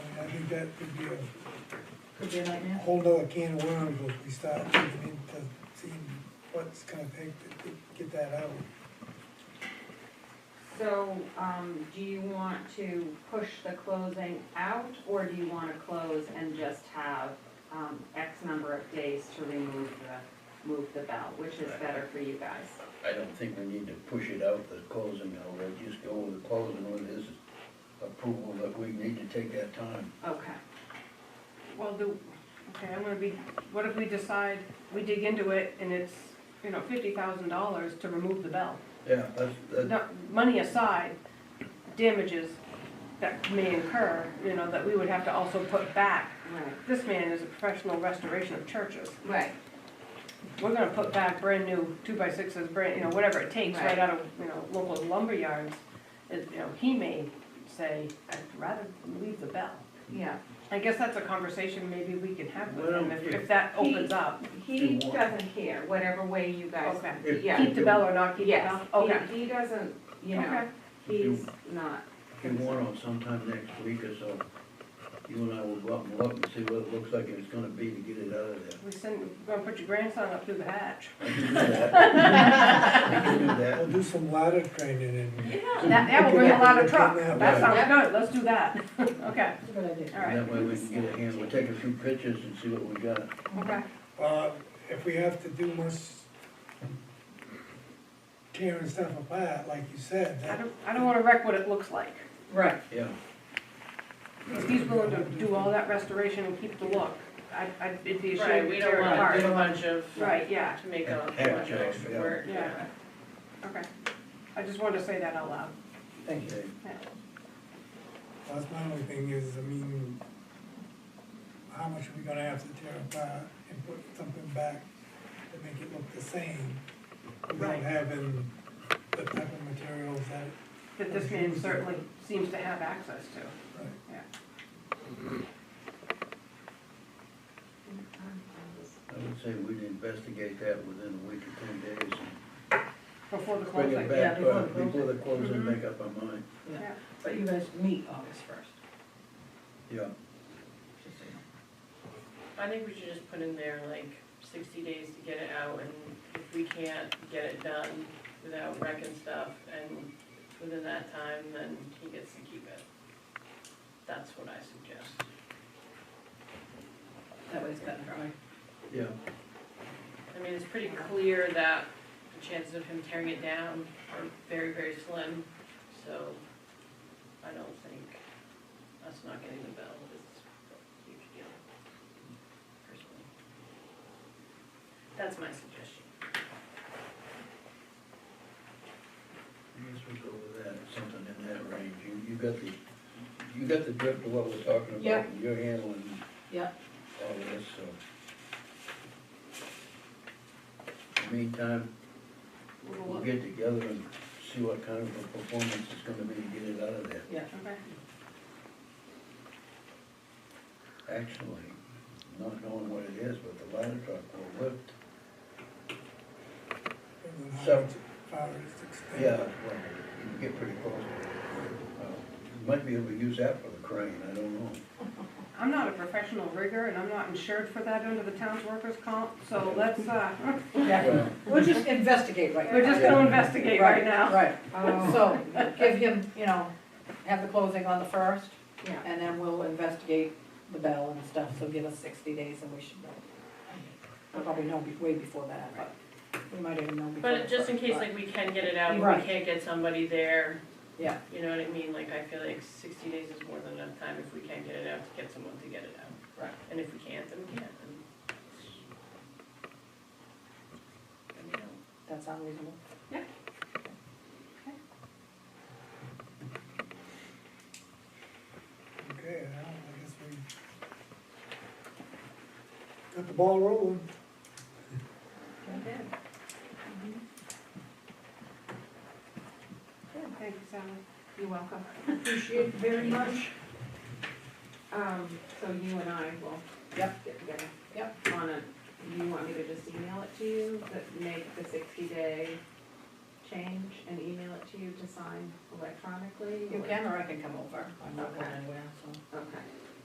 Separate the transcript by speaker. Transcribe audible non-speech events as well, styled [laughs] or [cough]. Speaker 1: that could be
Speaker 2: Could be a
Speaker 1: a
Speaker 2: nightmare.
Speaker 1: whole nother can of worms if we start digging into seeing what's gonna take to get- get that out.
Speaker 3: So, um, do you want to push the closing out, or do you wanna close and just have, um, X number of days to remove the, move the bell, which is better for you guys?
Speaker 4: I don't think we need to push it out, the closing, now, we'll just go with the closing with his approval that we need to take that time.
Speaker 3: Okay,
Speaker 5: Well, do, okay, I'm gonna be, what if we decide, we dig into it and it's, you know, fifty thousand dollars to remove the bell?
Speaker 4: Yeah, that's, that,
Speaker 5: No, Money aside, damages that may incur, you know, that we would have to also put back.
Speaker 3: right,
Speaker 5: This man is a professional restoration of churches.
Speaker 3: right,
Speaker 5: We're gonna put back brand new two by sixes, brand, you know, whatever it takes,
Speaker 3: Right.
Speaker 5: right out of, you know, local lumber yards. It- You know, he may say, I'd rather leave the bell.
Speaker 2: Hmm.
Speaker 3: yeah.
Speaker 5: I guess that's a conversation maybe we can have with
Speaker 4: Well,
Speaker 5: him if,
Speaker 4: if-
Speaker 5: if that opens up.
Speaker 3: He
Speaker 4: Do what?
Speaker 3: doesn't care, whatever way you guys,
Speaker 5: Okay.
Speaker 4: If-
Speaker 3: yeah,
Speaker 5: Keep the bell or not keep the
Speaker 3: yes,
Speaker 5: bell? Okay.
Speaker 3: he, he doesn't, you know,
Speaker 5: Okay.
Speaker 3: he's not,
Speaker 4: if you want on sometime next week or so, you and I will go up and look and see what it looks like it's gonna be to get it out of there.
Speaker 5: We send, we're gonna put your grandson up through the hatch.
Speaker 4: I can do that. I can do
Speaker 1: We'll [laughs]
Speaker 4: that.
Speaker 1: do some ladder training and
Speaker 5: That, that will bring a lot of truck. That
Speaker 3: Yeah.
Speaker 5: sounds good, let's do that. Okay,
Speaker 2: That's a good idea.
Speaker 5: all
Speaker 4: And that
Speaker 5: right.
Speaker 4: way we can get a hand, we'll take a few pictures and see what we got.
Speaker 5: Okay.
Speaker 1: Uh, if we have to do much tearing stuff apart, like you said,
Speaker 5: I
Speaker 1: that,
Speaker 5: don't, I don't wanna wreck what it looks like.
Speaker 2: Right.
Speaker 4: Yeah,
Speaker 5: If he's willing to do all that restoration and keep the look, I, I, it'd be a shame
Speaker 6: Right,
Speaker 5: to
Speaker 6: we
Speaker 5: tear
Speaker 6: don't
Speaker 5: it
Speaker 6: wanna
Speaker 5: apart.
Speaker 6: do a bunch of,
Speaker 5: Right, yeah,
Speaker 6: to make a
Speaker 4: Yeah,
Speaker 6: bunch of
Speaker 4: yeah,
Speaker 6: extra
Speaker 4: yeah.
Speaker 6: work.
Speaker 5: Yeah. okay. I just wanted to say that out loud.
Speaker 1: thank you.
Speaker 4: okay.
Speaker 5: Yeah.
Speaker 1: That's my only thing is, I mean, how much are we gonna have to tear apart and put something back to make it look the same? Without
Speaker 5: Right.
Speaker 1: having the type of materials that,
Speaker 5: That this man certainly seems to have access to.
Speaker 1: right,
Speaker 4: I would say we'd investigate that within a week or ten days
Speaker 5: Before
Speaker 4: and
Speaker 5: the
Speaker 4: bring
Speaker 5: closing,
Speaker 4: it
Speaker 2: yeah,
Speaker 4: back,
Speaker 2: before
Speaker 4: uh,
Speaker 2: the closing.
Speaker 4: before the closing,
Speaker 5: Mhm.
Speaker 4: make up our mind.
Speaker 5: yeah.
Speaker 2: But you guys meet August first,
Speaker 4: Yeah,
Speaker 2: just so you
Speaker 6: I think we should just put in there like sixty days to get it out, and if we can't get it done without wrecking stuff, and within that time, then he gets to keep it. That's what I suggest.
Speaker 2: know. That way it's cut and dry.
Speaker 4: yeah.
Speaker 6: I mean, it's pretty clear that the chances of him tearing it down are very, very slim, so I don't think us not getting the bell is a huge deal, personally. That's my suggestion.
Speaker 4: I guess we go with that, something in that range. You, you got the, you got the drift of what we're talking about.
Speaker 2: Yeah.
Speaker 4: and You're handling
Speaker 2: Yeah.
Speaker 4: all of this, so. In the Meantime,
Speaker 2: We'll
Speaker 4: we'll
Speaker 2: look.
Speaker 4: get together and see what kind of a performance it's gonna be to get it out of there.
Speaker 2: Yeah,
Speaker 5: Okay.
Speaker 4: Actually, not knowing what it is, but the ladder truck will lift.
Speaker 1: and then how
Speaker 4: So-
Speaker 1: much fire is extended.
Speaker 4: Yeah, well, you can get pretty close. Uh, you Might be able to use that for the crane, I don't know.
Speaker 5: I'm not a professional rigger and I'm not insured for that under the town's workers' comp, so let's, uh, [laughs]
Speaker 2: yeah.
Speaker 4: Well,
Speaker 2: We'll just investigate right now.
Speaker 5: we're just gonna investigate right now.
Speaker 2: Right,
Speaker 3: oh,
Speaker 2: so
Speaker 3: [laughs]
Speaker 2: give him, you know, have the closing on the first,
Speaker 3: yeah.
Speaker 2: and then we'll investigate the bell and stuff, so give us sixty days and we should know. We'll probably know be- way before that, but we might even know before.
Speaker 6: But
Speaker 2: the
Speaker 6: just in
Speaker 2: first,
Speaker 6: case,
Speaker 2: but-
Speaker 6: like, we can get it out, but
Speaker 2: Right.
Speaker 6: we can't get somebody there,
Speaker 2: Yeah,
Speaker 6: you know what I mean? Like, I feel like sixty days is more than enough time if we can get it out, to get someone to get it out.
Speaker 2: Right.
Speaker 6: And if we can't, then we can't, and. Let me know.
Speaker 2: that sounds reasonable.
Speaker 1: Okay, now, I guess we got the ball rolling.
Speaker 5: Thank you, Sally.
Speaker 3: You're welcome.
Speaker 2: Appreciate it very much.
Speaker 3: Um, so you and I will
Speaker 2: Yep.
Speaker 3: get together.
Speaker 2: Yep.
Speaker 3: On a, you want me to just email it to you, that make the sixty day change and email it to you to sign electronically?
Speaker 2: You
Speaker 3: or-
Speaker 2: can, or I can come over, I'm not going
Speaker 3: Okay.
Speaker 2: anywhere, so.
Speaker 3: Okay,